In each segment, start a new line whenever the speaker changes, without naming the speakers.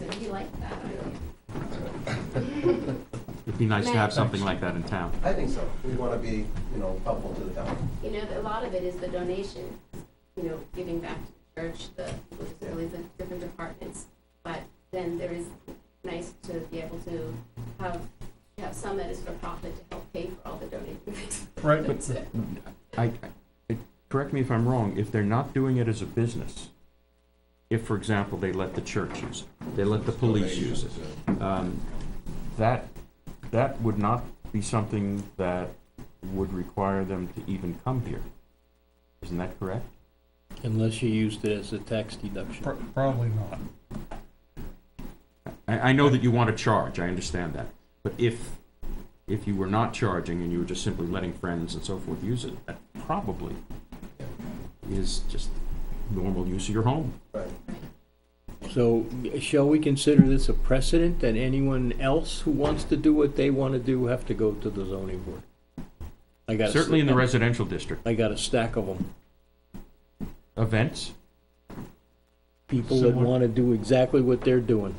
really like that idea.
It'd be nice to have something like
Thanks.
that in town.
I think so. We want to be, you know, helpful to the town.
You know, a lot of it is the donation, you know, giving back to the church, the, really the different departments. But then there is, nice to be able to have, have some that is for profit to help pay for all the donated things.
Right,
That's
but
it.
I, I- I- correct me if I'm wrong, if they're not doing it as a business, if, for example, they let the church use it, they let the police use it, um, that, that would not be something that would require them to even come here. Isn't that correct?
Unless you used it as a tax deduction.
pr- probably not.
I, I know that you want to charge, I understand that, but if, if you were not charging and you were just simply letting friends and so forth use it, that probably is just normal use of your home.
Right.
So shall we consider this a precedent that anyone else who wants to do what they want to do have to go to the zoning board? I got a-
Certainly in the residential district.
I got a stack of them.
Events,
People that
Similar.
want to do exactly what they're doing.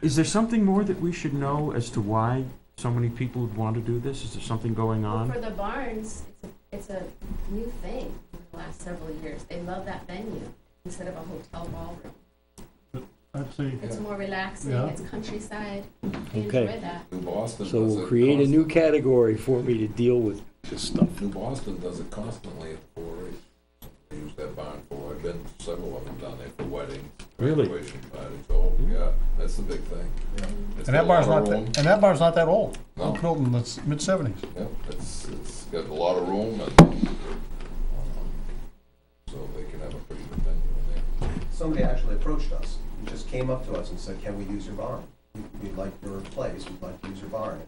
Is there something more that we should know as to why so many people would want to do this? Is there something going
Well,
on?
For the barns, it's a, it's a new thing in the last several years. They love that venue instead of a hotel ballroom.
I'd say,
It's more relaxing,
Yeah.
it's countryside, they
Okay.
enjoy that.
New Boston
So
does
we'll
it
create a new
constant-
category for me to deal with this stuff.
New Boston does it constantly at the four H. They use that barn for, I've been to several of them down there for weddings,
Really?
graduation parties, oh, yeah, that's the big thing. It's
and
got
that
a
bar's
lot
not,
of
that-
room.
and that bar's not that old.
No.
Built in the mid seventies.
Yeah, it's, it's got a lot of room and, um, so they can have a pretty good venue in there.
Somebody actually approached us, He just came up to us and said, can we use your barn? We- We'd like your place, we'd like to use your barn.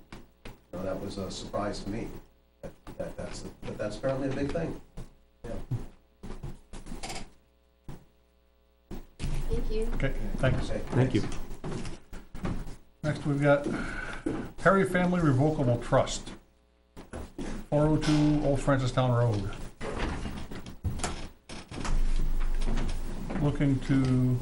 You know, that was a surprise to me. That, that- that's, but that's apparently a big thing.
Thank you.
Okay, thanks.
Okay,
Thank you.
Next, we've got Perry Family Revocable Trust, four oh two Old Francistown Road. Looking to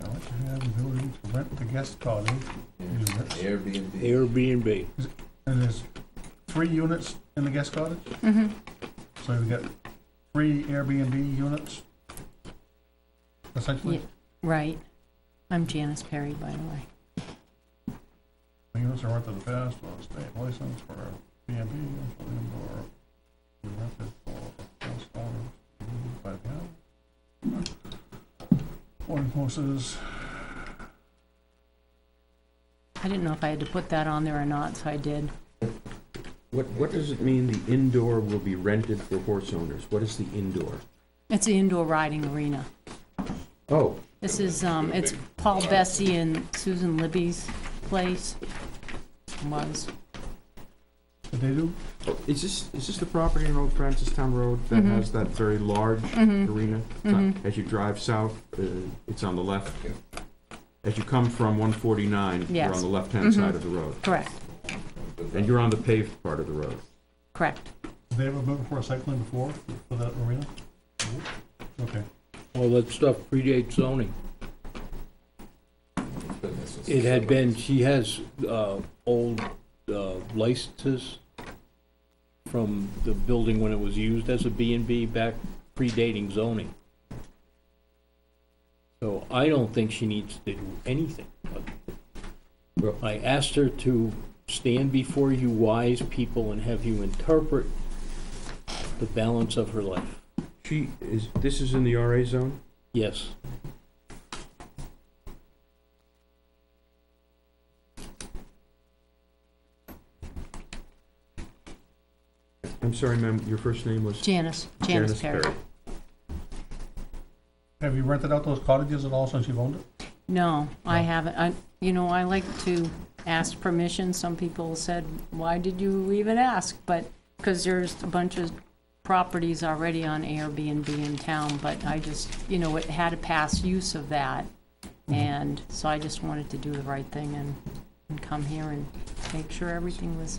Now, what you have the ability to rent the guest cottage units.
Airbnb.
Airbnb.
And there's three units in the guest cottage? So we've got three Airbnb units, essentially?
Yeah, Right. I'm Janice Perry, by the way.
The units are rented to the past, or state license for Airbnb, or we rented for guest cottage, by the hour. Boarding houses,
I didn't know if I had to put that on there or not, so I did.
What, what does it mean the indoor will be rented for horse owners? What is the indoor?
It's the indoor riding arena.
Oh,
This is, um, it's Paul Bessie and Susan Libby's place. Was.
did they do?
is this, is this the property in Old Francistown Road that
Mm-hmm.
has that very large arena? It's on- As you drive south, uh, it's on the left. As you come from one forty-nine, you're on
Yes. Mm-hmm.
the left-hand side of the road.
Correct,
And you're on the paved part of the road.
correct.
Did they ever move for a cycling before, for that arena? Okay.
All that stuff predates zoning.
It's been there since
It
the
had
70s.
been, she has uh, old uh, licenses from the building when it was used as a B and B back predating zoning. So I don't think she needs to do anything.
Well-
I asked her to stand before you wise people and have you interpret the balance of her life.
She is, this is in the RA zone?
Yes,
I'm sorry, ma'am, your first name was?
Janice, Janice Perry.
Have you rented out those cottages at all since you've owned it?
No, I haven't. I, you know, I like to ask permission. Some people said, why did you even ask? But, because there's a bunch of properties already on Airbnb in town, but I just, you know, it had a past use of that. And so I just wanted to do the right thing and, and come here and make sure everything was